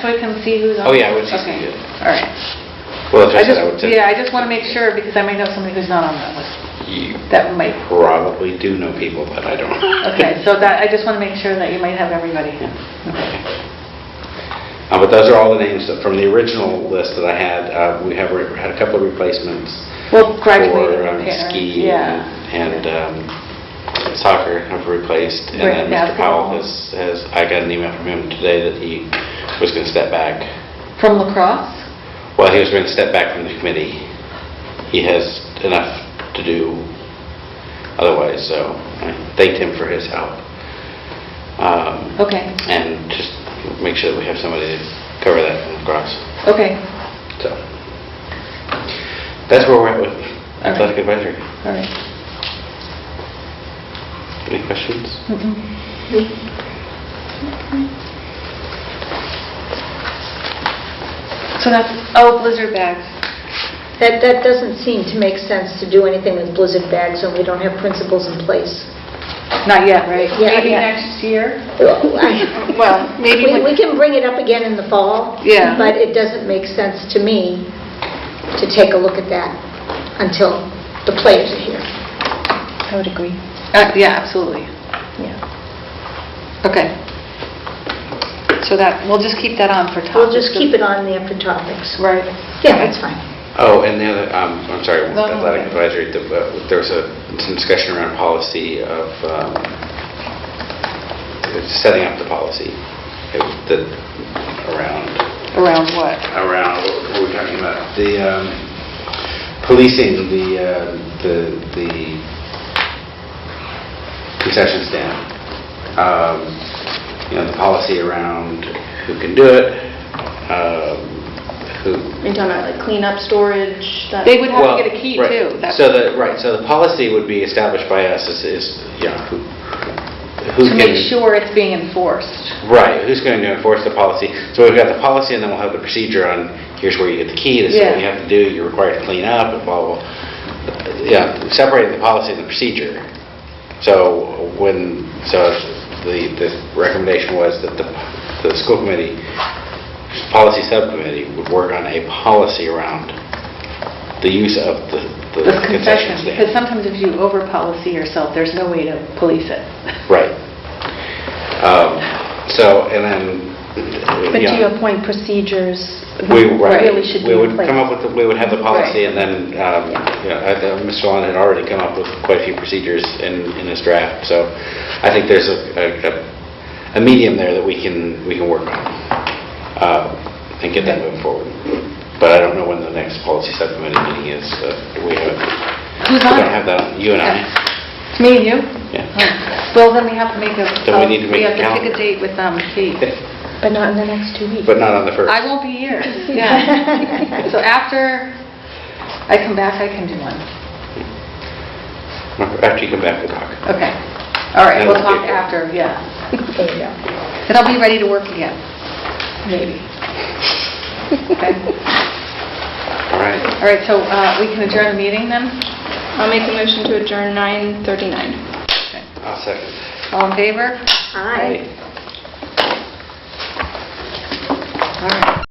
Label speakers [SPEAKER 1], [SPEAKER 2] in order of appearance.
[SPEAKER 1] so I can see who's on?
[SPEAKER 2] Oh, yeah, I would see-
[SPEAKER 1] Okay,
[SPEAKER 2] yeah.
[SPEAKER 1] all right.
[SPEAKER 2] Well,
[SPEAKER 1] I
[SPEAKER 2] that's what I would
[SPEAKER 1] just,
[SPEAKER 2] say.
[SPEAKER 1] yeah, I just want to make sure, because I might know somebody who's not on that list,
[SPEAKER 2] You
[SPEAKER 1] that might,
[SPEAKER 2] probably do know people, but I don't.
[SPEAKER 1] okay, so that, I just want to make sure that you might have everybody.
[SPEAKER 2] Uh, But those are all the names that- from the original list that I had. Uh, We have, re- had a couple of replacements.
[SPEAKER 1] Well, graduating
[SPEAKER 2] for, um,
[SPEAKER 1] parents,
[SPEAKER 2] Ski
[SPEAKER 1] yeah.
[SPEAKER 2] and um, soccer have replaced. And then
[SPEAKER 1] Right,
[SPEAKER 2] Mr. Powell
[SPEAKER 1] basketball.
[SPEAKER 2] has, has, I got an email from him today that he was going to step back.
[SPEAKER 1] From lacrosse?
[SPEAKER 2] Well, he was going to step back from the committee. He has enough to do otherwise, so I thanked him for his help. Um,
[SPEAKER 1] Okay,
[SPEAKER 2] and just make sure that we have somebody to cover that from across.
[SPEAKER 1] okay,
[SPEAKER 2] So, that's where we're at with athletic advisory.
[SPEAKER 1] all right.
[SPEAKER 2] Any questions?
[SPEAKER 1] Mm-mm. So that's, oh, blizzard bags.
[SPEAKER 3] That, that doesn't seem to make sense to do anything with blizzard bags when we don't have principles in place.
[SPEAKER 1] Not yet, right?
[SPEAKER 3] Yeah,
[SPEAKER 1] Maybe
[SPEAKER 3] yeah.
[SPEAKER 1] next year?
[SPEAKER 3] Well,
[SPEAKER 1] Well, maybe
[SPEAKER 3] We
[SPEAKER 1] when-
[SPEAKER 3] we can bring it up again in the fall.
[SPEAKER 1] Yeah.
[SPEAKER 3] But it doesn't make sense to me to take a look at that until the players are here.
[SPEAKER 1] I would agree. Uh, Yeah, absolutely.
[SPEAKER 3] Yeah.
[SPEAKER 1] Okay. So that, we'll just keep that on for topics.
[SPEAKER 3] We'll just keep it on there for topics.
[SPEAKER 1] Right.
[SPEAKER 3] Yeah, that's fine.
[SPEAKER 2] Oh, and the other, um, I'm sorry,
[SPEAKER 1] No, no,
[SPEAKER 2] athletic
[SPEAKER 1] okay.
[SPEAKER 2] advisory, the- uh, there was a, some discussion around policy of, um, setting up the policy, It was the, around
[SPEAKER 1] Around what?
[SPEAKER 2] around, what were we talking about? The um, policing, the, uh, the the concession stand. Um, You know, the policy around who can do it, um, who...
[SPEAKER 4] Are you talking about like cleanup, storage? that-
[SPEAKER 1] They would have
[SPEAKER 2] Well,
[SPEAKER 1] to get a key
[SPEAKER 2] right.
[SPEAKER 1] too. That's-
[SPEAKER 2] So the, right, so the policy would be established by us is, is, you know, who
[SPEAKER 1] To
[SPEAKER 2] who can...
[SPEAKER 1] make sure it's being enforced.
[SPEAKER 2] Right, who's going to enforce the policy? So we've got the policy, and then we'll have the procedure on, here's where you get the key, this is
[SPEAKER 1] Yeah.
[SPEAKER 2] what you have to do, you're required to clean up, and blah, blah, blah. Yeah, separating the policy and the procedure. So when, so the, the recommendation was that the, the school committee, policy subcommittee would work on a policy around the use of the the
[SPEAKER 1] The concession,
[SPEAKER 2] concession
[SPEAKER 1] because
[SPEAKER 2] stand.
[SPEAKER 1] sometimes if you over-policy yourself, there's no way to police it.
[SPEAKER 2] Right. Um, So, and then, you know...
[SPEAKER 4] But to your point, procedures
[SPEAKER 2] We, right.
[SPEAKER 4] really should be
[SPEAKER 2] We would
[SPEAKER 4] in place.
[SPEAKER 2] come up with, the- we would have the policy,
[SPEAKER 1] Right.
[SPEAKER 2] and then, um, you know, I- uh, Mr. Lon had already come up with quite a few procedures in, in his draft, so I think there's a, a- a medium there that we can, we can work on, uh, and get that moving forward. But I don't know when the next policy subcommittee meeting is, uh, do we have, we
[SPEAKER 1] Who's on it?
[SPEAKER 2] don't have that, you and I,
[SPEAKER 1] It's me and you?
[SPEAKER 2] yeah.
[SPEAKER 1] Oh. Well, then we have to make a... um,
[SPEAKER 2] Then we need to make a
[SPEAKER 1] have to pick a
[SPEAKER 2] calendar.
[SPEAKER 1] date with um, Kate.
[SPEAKER 4] But not in the next two weeks.
[SPEAKER 2] But not on the first.
[SPEAKER 1] I won't be here, yeah. So after I come back, I can do one.
[SPEAKER 2] After you come back, we'll talk.
[SPEAKER 1] Okay. All right,
[SPEAKER 2] That
[SPEAKER 1] we'll
[SPEAKER 2] would be
[SPEAKER 1] talk
[SPEAKER 2] good.
[SPEAKER 1] after, yeah.
[SPEAKER 3] There you go.
[SPEAKER 1] Then I'll be ready to work again, maybe. Okay.
[SPEAKER 2] All right.
[SPEAKER 1] All right, so uh, we can adjourn the meeting then?
[SPEAKER 4] I'll make a motion to adjourn 9:39.
[SPEAKER 2] I'll second.
[SPEAKER 1] All in favor?
[SPEAKER 3] Aye.
[SPEAKER 1] All right.